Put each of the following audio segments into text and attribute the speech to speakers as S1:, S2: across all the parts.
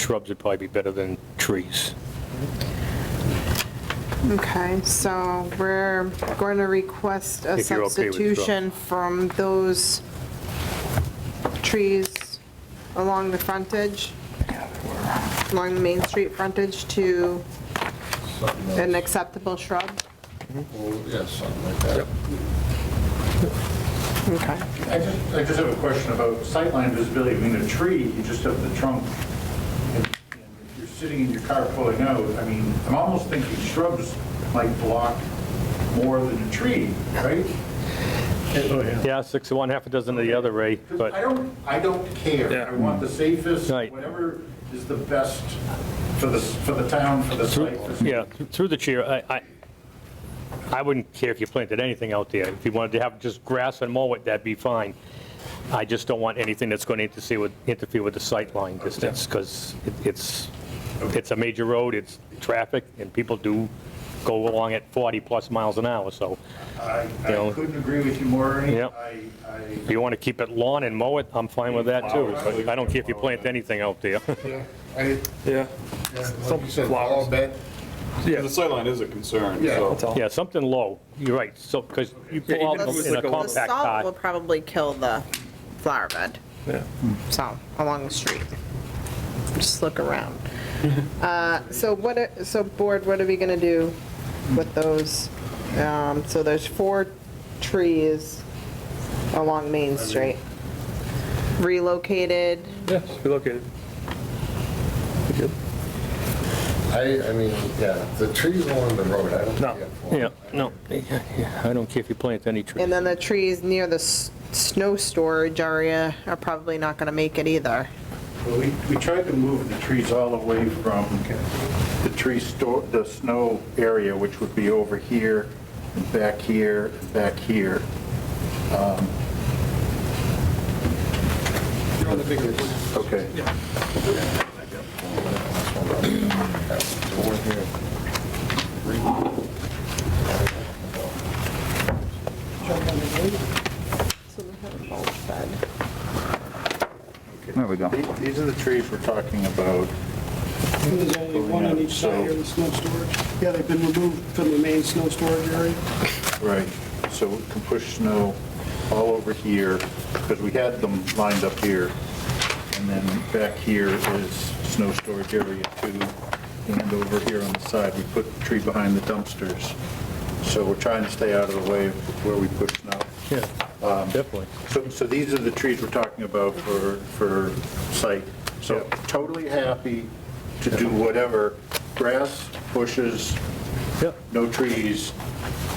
S1: shrubs would probably be better than trees.
S2: Okay, so we're going to request a
S1: If you're okay with it, sure.
S2: substitution from those trees along the frontage, along the Main Street frontage to
S3: Something
S2: an
S3: else.
S2: acceptable shrub?
S3: Well, Yeah, something like that.
S2: Okay.
S4: I just, I just have a question about sightline visibility. I mean, a tree, you just have the trunk. And and If you're sitting in your car pulling out, I mean, I'm almost thinking shrubs might block more than a tree, right?
S1: Yeah, six of one, half a dozen of the other, Ray,
S4: 'Cause I
S1: but,
S4: don't, I don't care. I want the safest,
S1: Right.
S4: whatever is the best for the, for the town, for the site.
S1: yeah, through the chair, I, I, I wouldn't care if you planted anything out there. If you wanted to have just grass and mow it, that'd be fine. I just don't want anything that's going to interfere with, interfere with the sightline distance, because it's, it's a major road, it's traffic, and people do go along at 40-plus miles an hour, so
S4: I,
S1: Yeah.
S4: I couldn't agree with you more, Ernie.
S1: Yep.
S4: I, I.
S1: if you want to keep it lawn and mow it, I'm fine with that, too. But I don't care if you plant anything out there.
S3: Yeah, I,
S5: Yeah,
S3: like you said, all bad,
S6: Yeah, the sightline is a concern,
S3: Yeah.
S6: so.
S5: that's all.
S1: Yeah, something low, you're right, so, because you
S5: Yeah, even
S1: pull
S5: if it
S1: out
S5: was
S1: in a
S5: like a low-
S2: The
S1: compact
S2: salt will
S1: pot.
S2: probably kill the flower bed,
S5: Yeah.
S2: so, along the street. Just look around. Uh, So what, are- so board, what are we gonna do with those? Um, So there's four trees along Main Street. Relocated,
S5: Yeah, just relocated. We good?
S3: I, I mean, yeah, the trees along the road, I don't.
S5: No.
S3: care for.
S1: Yeah, no, yeah, yeah, I don't care if you plant any tree.
S2: and then the trees near the s- snow storage area are probably not gonna make it either.
S4: Well, we, we tried to move the trees all away from the tree store, the snow area, which would be over here, and back here, and back here. Um, Okay.
S3: Door here.
S4: There we go. These are the trees we're talking about.
S7: There's only one on each side here in the snow storage. Yeah, they've been removed from the main snow storage area.
S4: Right. So we can push snow all over here, because we had them lined up here. And then back here is snow storage area two, and over here on the side, we put the tree behind the dumpsters. So we're trying to stay out of the way of where we push snow.
S1: Yeah,
S4: Um,
S1: definitely.
S4: So, so these are the trees we're talking about for, for site. So totally happy to do whatever, grass, bushes,
S1: Yep.
S4: no trees,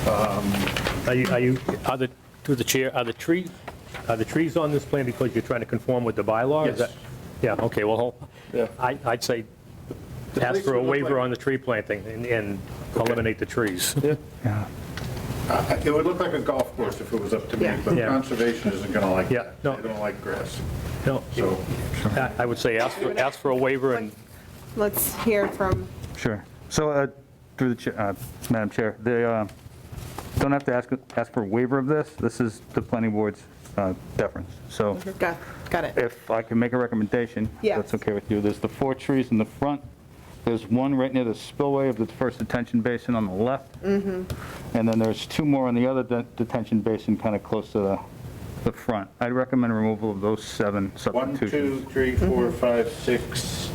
S1: Are you, are you, are the, through the chair, are the tree, are the trees on this plan because you're trying to conform with the bylaw? Is
S4: Yes.
S1: that- Yeah, okay, well, I, I'd say ask
S4: place
S1: for a
S4: would look
S1: waiver
S4: like-
S1: on the tree planting and, and eliminate the trees.
S4: I- It would look like a golf course if it was up to me,
S2: Yeah.
S4: but
S1: Yeah.
S4: conservation isn't going to like
S1: Yeah,
S4: that.
S1: no.
S4: They don't like grass,
S1: No,
S4: so.
S1: I I would say ask for, ask for a waiver and,
S2: Let's hear from
S8: Sure. So, uh, through the, chair- uh, Madam Chair, they uh, don't have to ask, ask for a waiver of this. This is the planning board's uh, deference. So
S2: Got, got it.
S8: if I can make a recommendation, if
S2: Mm-hmm. Yeah.
S8: that's okay with you, there's the four trees in the front. There's one right near the spillway of the first detention basin on the left. And then there's two more on the other de- detention basin, kind of close to the, the front. I'd recommend removal of those seven
S4: One, two,
S8: substitutions.
S4: three, four,
S2: Mm-hmm.
S4: five, six,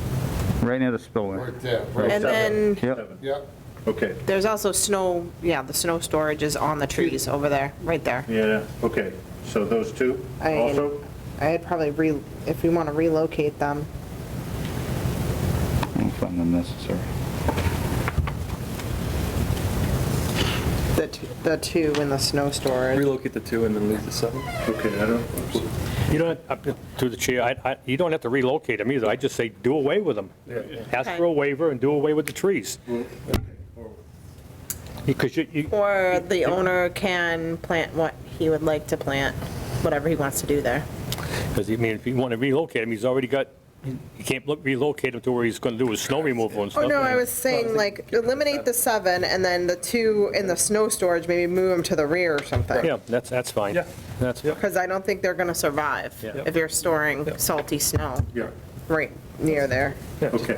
S8: Right near the spillway.
S3: Right there,
S2: And
S3: right,
S2: then
S8: Yep,
S3: yeah,
S4: okay,
S2: there's also snow, yeah, the snow storage is on the trees over there, right there.
S4: yeah, okay. So those two
S2: I-
S4: also?
S2: I'd probably re, if we want to relocate them.
S8: I don't find them necessary.
S2: The, t- the two in the snow storage.
S5: Relocate the two and then leave the seven.
S4: Okay, I don't,
S1: you don't, up to- through the chair, I, I, you don't have to relocate them either. I just say do away with them. Ask for a waiver and do away with the trees. Because you, you,
S2: Or the owner can plant what he would like to plant, whatever he wants to do there.
S1: Because, I mean, if you want to relocate him, he's already got, you can't lo- relocate him to where he's going to do his snow removal and stuff.
S2: Oh, no, I was saying like eliminate the seven and then the two in the snow storage, maybe move them to the rear or something.
S1: Yeah, that's, that's fine.
S5: Yeah.
S1: That's,
S5: Yeah.
S2: Because I don't think they're going to survive
S1: Yeah.
S2: if you're storing salty snow.
S4: yeah.
S9: right near there.
S2: Okay.